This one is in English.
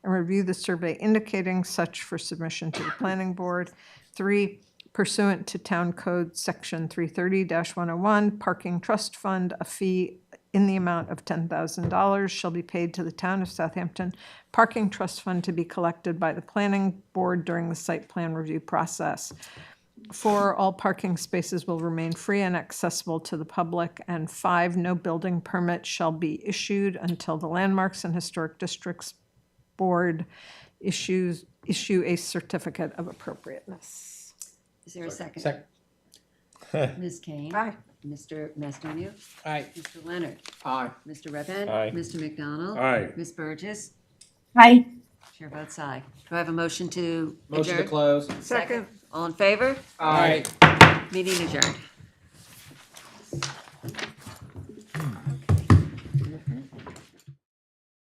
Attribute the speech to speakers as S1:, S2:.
S1: review the survey indicating such for submission to the planning board. Three, pursuant to Town Code Section 330-101, Parking Trust Fund, a fee in the amount of $10,000 shall be paid to the town of Southampton Parking Trust Fund to be collected by the planning board during the site plan review process. Four, all parking spaces will remain free and accessible to the public. And five, no building permit shall be issued until the Landmarks and Historic Districts Board issues, issue a certificate of appropriateness.
S2: Is there a second?
S3: Second.
S2: Ms. Kane?
S1: Aye.
S2: Mr. Mastonia?
S3: Aye.
S2: Mr. Leonard?
S3: Aye.
S2: Mr. Redman?
S4: Aye.
S2: Mr. McDonald?
S4: Aye.
S2: Ms. Burgess?
S5: Aye.
S2: Chair votes aye. Do I have a motion to
S3: Motion to
S2: adjourn?
S3: close.
S2: Second. All in favor?
S3: Aye.
S2: Meeting adjourned.